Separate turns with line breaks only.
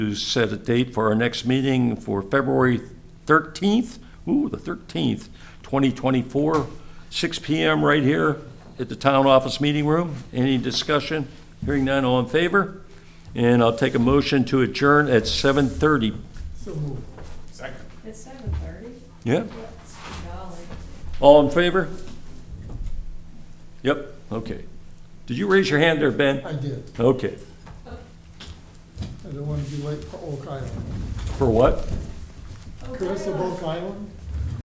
to set a date for our next meeting for February 13th, ooh, the 13th, 2024, 6 PM right here at the Town Office Meeting Room. Any discussion? Hearing none, all in favor? And I'll take a motion to adjourn at 7:30.
It's seven thirty?
Yeah?
Golly.
All in favor? Yep, okay. Did you raise your hand there, Ben?
I did.
Okay.
I don't want to be late for Oak Island.
For what?
Curse of Oak Island?